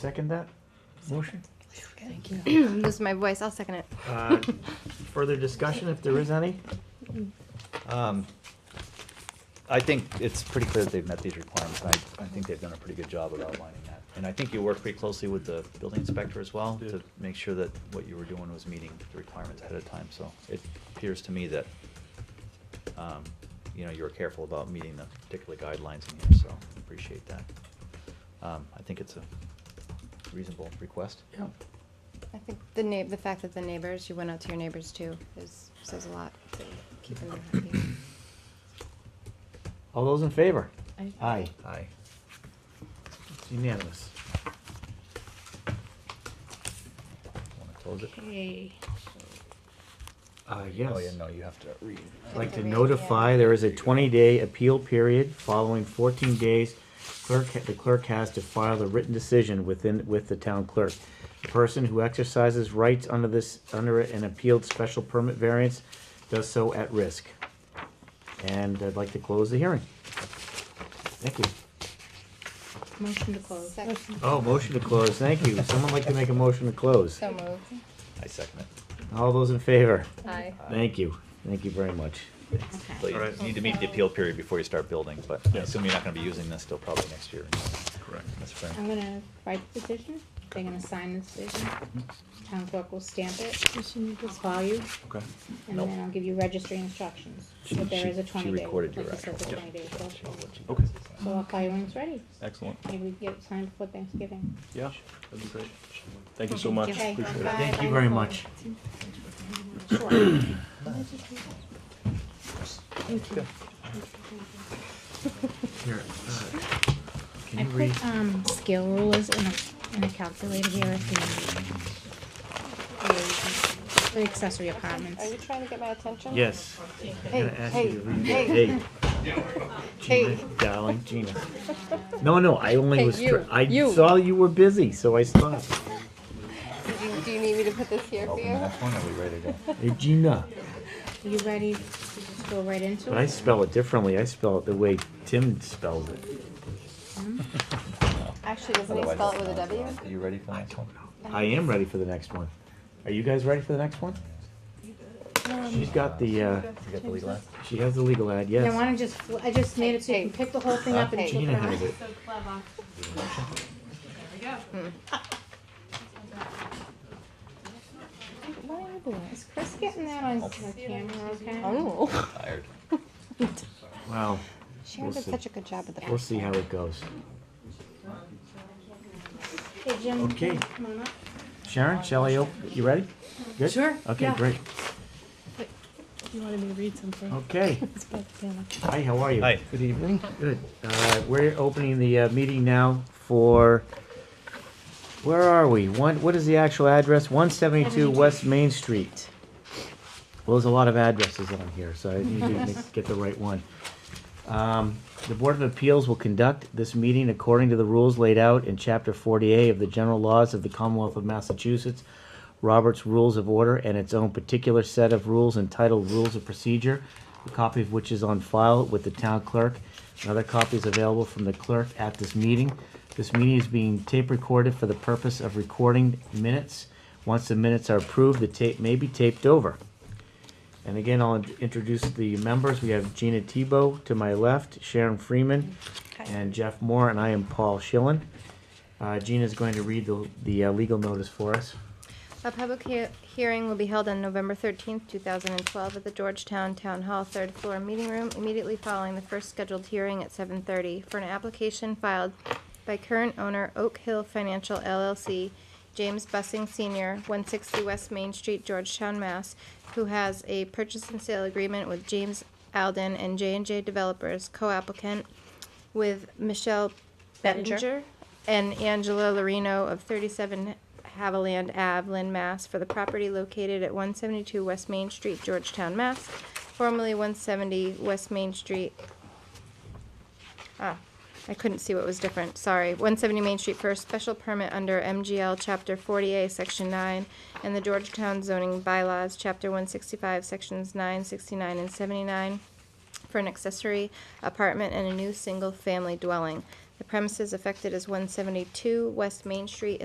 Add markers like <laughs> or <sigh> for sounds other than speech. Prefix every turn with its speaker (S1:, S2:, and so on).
S1: Second that motion?
S2: Lose my voice. I'll second it.
S1: Uh, Further discussion, if there is any?
S3: Um, I think it's pretty clear that they've met these requirements, and I, I think they've done a pretty good job of outlining that. And I think you worked pretty closely with the building inspector as well, to
S4: Did.
S3: make sure that what you were doing was meeting the requirements ahead of time, so it appears to me that, um, you know, you were careful about meeting the particular guidelines in here, so appreciate that. Um, I think it's a reasonable request.
S1: Yeah.
S2: I think the na- the fact that the neighbors, you went out to your neighbors too, is says a lot. To keep them happy.
S1: All those in favor?
S5: Aye.
S1: Aye.
S3: Aye.
S1: It's Unanimous.
S3: Wanna close it?
S5: Okay.
S1: Uh,
S3: Oh,
S1: yes.
S3: yeah, no, you have to read.
S1: I'd like to
S2: Yeah.
S1: notify, there is a twenty-day appeal period. Following fourteen days, clerk, the clerk has to file the written decision within, with the town clerk. The person who exercises rights under this, under an appealed special permit variance does so at risk. And I'd like to close the hearing. Thank you.
S5: Motion to close.
S2: Second.
S1: Oh, motion to close, thank you. Someone like to make a motion to close?
S2: So moved.
S3: I second it.
S1: All those in favor?
S2: Aye.
S1: Thank you, thank you very much.
S3: So you
S4: Alright.
S3: need to meet the appeal period before you start building, but I
S4: Yes.
S3: assume you're not gonna be using this till probably next year.
S4: Correct.
S3: That's fair.
S5: I'm gonna write the petition, they're gonna sign this petition, town clerk will stamp it, I'll call you,
S4: Okay.
S5: and
S3: Nope.
S5: then I'll give you registry instructions.
S3: She-
S5: But there
S3: she-
S5: is a
S3: she
S5: twenty day, like
S3: recorded
S5: you
S3: your
S5: said, the
S3: actual-
S5: twenty day.
S4: Okay.
S5: So I'll call you when it's ready,
S4: Excellent.
S5: maybe we can get it signed before Thanksgiving.
S4: Yeah, that'd be great. Thank you so much.
S5: Okay,
S4: Appreciate it.
S5: bye.
S1: Thank you very much. Here, uh, can
S5: I
S1: you read?
S2: uh,
S5: put, um, scale rulers in a, in a calculator here, the, the accessory
S2: Are you
S5: apartments.
S2: trying to get my attention?
S1: Yes.
S2: Hey,
S1: I'm gonna ask you
S2: hey,
S1: to read
S2: hey.
S1: it. Hey, Gina, darling, Gina. No, no, I only
S2: Hey,
S1: was,
S2: you,
S1: tr- I
S2: you.
S1: saw you were busy, so I stopped.
S2: Do you, do you need me to put this here for
S3: Open the
S2: you?
S3: next one, are we ready to
S5: <laughs>
S3: go?
S1: Hey, Gina,
S5: You ready to just go right into
S1: but I
S5: it?
S1: spell it differently, I spell it the way Tim spells it.
S2: Actually, doesn't he spell it with a W?
S3: Are you ready for the next one?
S1: I am ready for the next one. Are you guys ready for the next one? She's got the, uh,
S3: You got the legal ad?
S1: she has the legal ad,
S5: I
S1: yes.
S5: wanna just, fl- I just made it so you can pick the whole thing up and
S2: Hey.
S5: flip
S1: Gina
S5: it around.
S1: has it.
S2: Why are you doing this?
S5: Is Chris getting that on the camera, okay?
S2: Oh,
S3: Tired.
S1: Wow,
S2: Sharon did
S1: see.
S2: such a good job with the.
S1: we'll see how it goes.
S5: Hey, Jim.
S1: Okay.
S5: Come on up.
S1: Sharon, shall I, op- you ready? Good?
S6: Sure,
S1: Okay,
S6: yeah.
S1: great.
S6: You wanted me to read something.
S1: Okay.
S6: It's about the family.
S1: Hi, how are you?
S3: Hi.
S1: Good evening. Good. Uh, We're opening the uh, meeting now for, where are we? One, what is the actual address? 172 West Main Street. Well, there's a lot of addresses on here, so I need to make- get the right one. Um, The Board of Appeals will conduct this meeting according to the rules laid out in Chapter 40A of the General Laws of the Commonwealth of Massachusetts, Robert's Rules of Order, and its own particular set of rules entitled Rules of Procedure, a copy of which is on file with the town clerk. Another copy is available from the clerk at this meeting. This meeting is being tape recorded for the purpose of recording minutes. Once the minutes are approved, the tape may be taped over. And again, I'll in- introduce the members. We have Gina Tebow to my left, Sharon Freeman, and Jeff Moore, and I am Paul Schillen. Uh, Gina's going to read the, the uh, legal notice for us.
S2: A public hea- hearing will be held on November 13th, 2012, at the Georgetown Town Hall, third floor meeting room, immediately following the first scheduled hearing at 7:30 for an application filed by current owner Oak Hill Financial LLC, James Bussing Sr., 160 West Main Street, Georgetown, Mass., who has a purchase and sale agreement with James Alden and j and J Developers, co-applicant, with Michelle
S6: Bettinger.
S2: Bettinger and Angela Lorino of 37 Haviland Ave, Lynn, Mass. for the property located at 172 West Main Street, Georgetown, Mass., formerly 170 West Main Street. Ah, I couldn't see what was different, sorry. 170 Main Street for a special permit under MGL Chapter 40A, Section 9, and the Georgetown zoning bylaws, Chapter 165, Sections 9, 69, and 79 for an accessory apartment and a new single-family dwelling. The premises affected is one seventy-two West Main Street